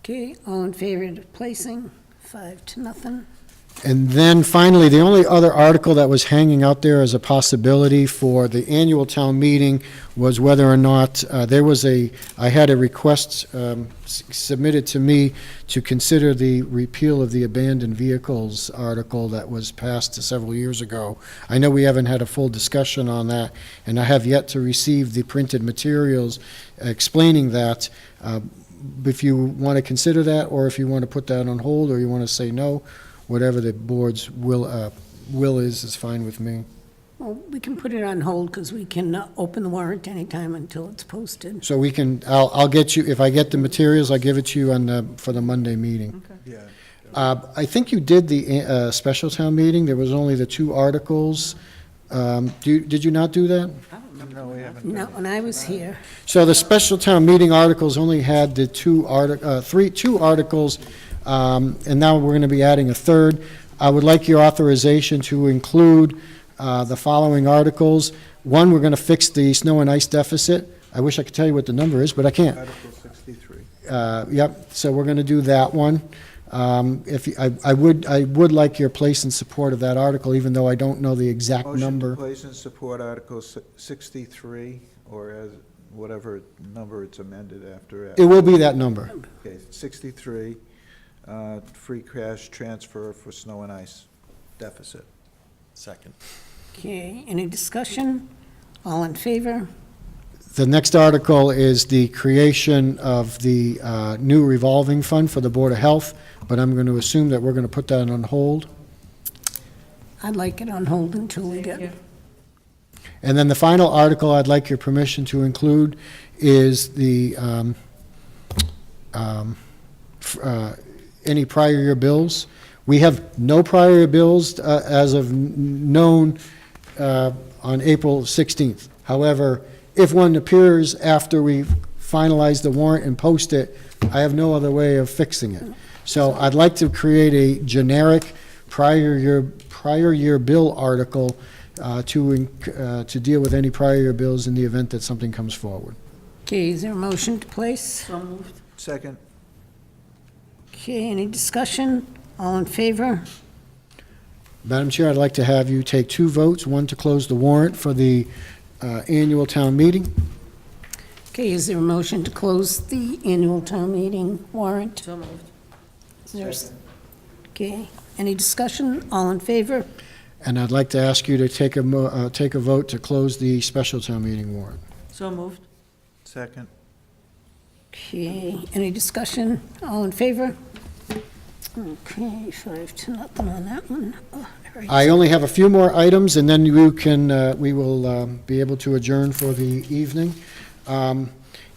Okay, all in favor of placing, five to nothing. And then finally, the only other article that was hanging out there as a possibility for the annual town meeting was whether or not, uh, there was a, I had a request um, s- submitted to me to consider the repeal of the abandoned vehicles article that was passed several years ago. I know we haven't had a full discussion on that, and I have yet to receive the printed materials explaining that. Uh, If you want to consider that, or if you want to put that on hold, or you want to say no, whatever the board's will, uh, will is, is fine with me. Well, we can put it on hold because we can uh, open the warrant anytime until it's posted. So we can, I'll, I'll get you, if I get the materials, I'll give it to you on the, for the Monday meeting. Yeah. Uh, I think you did the, uh, special town meeting, there was only the two articles. Um, do, you- did you not do that? No, we haven't. Not when I was here. So the special town meeting articles only had the two artic, uh, three, two articles, um, and now we're gonna be adding a third. I would like your authorization to include, uh, the following articles. One, we're gonna fix the snow and ice deficit. I wish I could tell you what the number is, but I can't Article 63. uh, yep, so we're going to do that one. Um, If, you- I I would, I would like your place in support of that article, even though I don't know the exact Motion to number. place and support Article si- 63, or as, whatever number it's amended after. uh, It will be that number. Okay, 63, uh, free cash transfer for snow and ice deficit. Second. Okay, any discussion? All in favor? The next article is the creation of the uh, new revolving fund for the Board of Health, but I'm going to assume that we're going to put that on hold. I'd like it on hold until we get, And then the final article I'd like your permission to include is the, um, um, f- uh, any prior year bills. We have no prior year bills uh, as of n- known uh, on April 16th. However, if one appears after we finalize the warrant and post it, I have no other way of fixing it. So I'd like to create a generic prior year, prior year bill article uh, to, inc- uh, to deal with any prior year bills in the event that something comes forward. okay, is there a motion to place? Second, Okay, any discussion? All in favor? Madam Chair, I'd like to have you take two votes, one to close the warrant for the uh, annual town meeting, Okay, is there a motion to close the annual town meeting warrant? So moved. Is there, a s- okay, any discussion? All in favor? and I'd like to ask you to take a, mo- uh, take a vote to close the special town meeting warrant. So moved. second, Okay, any discussion? All in favor? Okay, five to nothing on that one. Oh, All right. I only have a few more items, and then you can, uh, we will um, be able to adjourn for the evening. Um,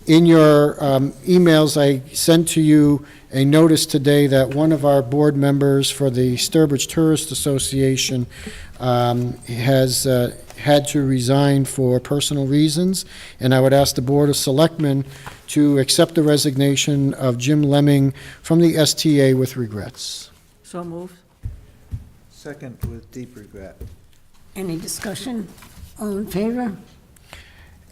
In your um, emails, I sent to you a notice today that one of our board members for the Sturbridge Tourist Association um, has uh, had to resign for personal reasons, and I would ask the Board of Selectmen to accept the resignation of Jim Lemming from the STA with regrets. So moved. second with deep regret. Any discussion? All in favor?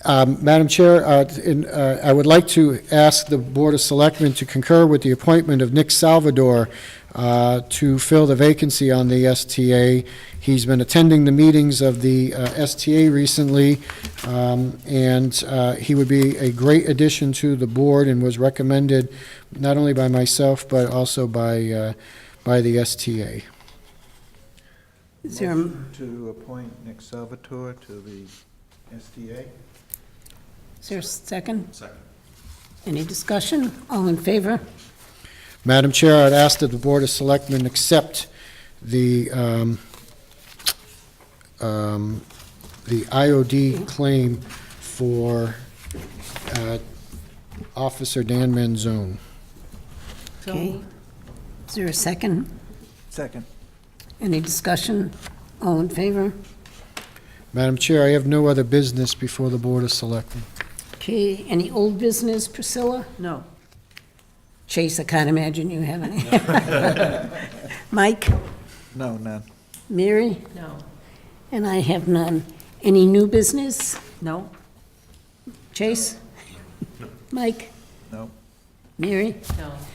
Um, Madam Chair, uh, in, uh, I would like to ask the Board of Selectmen to concur with the appointment of Nick Salvador uh, to fill the vacancy on the STA. He's been attending the meetings of the uh, STA recently, um, and uh, he would be a great addition to the board and was recommended not only by myself, but also by, uh, by the STA. Is there, a- Motion To appoint Nick Salvatore to the SDA. is there a second? Second. Any discussion? All in favor? Madam Chair, I'd ask that the Board of Selectmen accept the, um, um, the IOD claim for uh, Officer Dan Manzone. So Okay. moved. Is there a second? Second, Any discussion? All in favor? Madam Chair, I have no other business before the Board of Selectmen. Okay, any old business, Priscilla? No. Chase, I can't imagine you have any. Mike, no, none. Mary, No. and I have none. Any new business? No? Chase? Mike? No. Mary? No.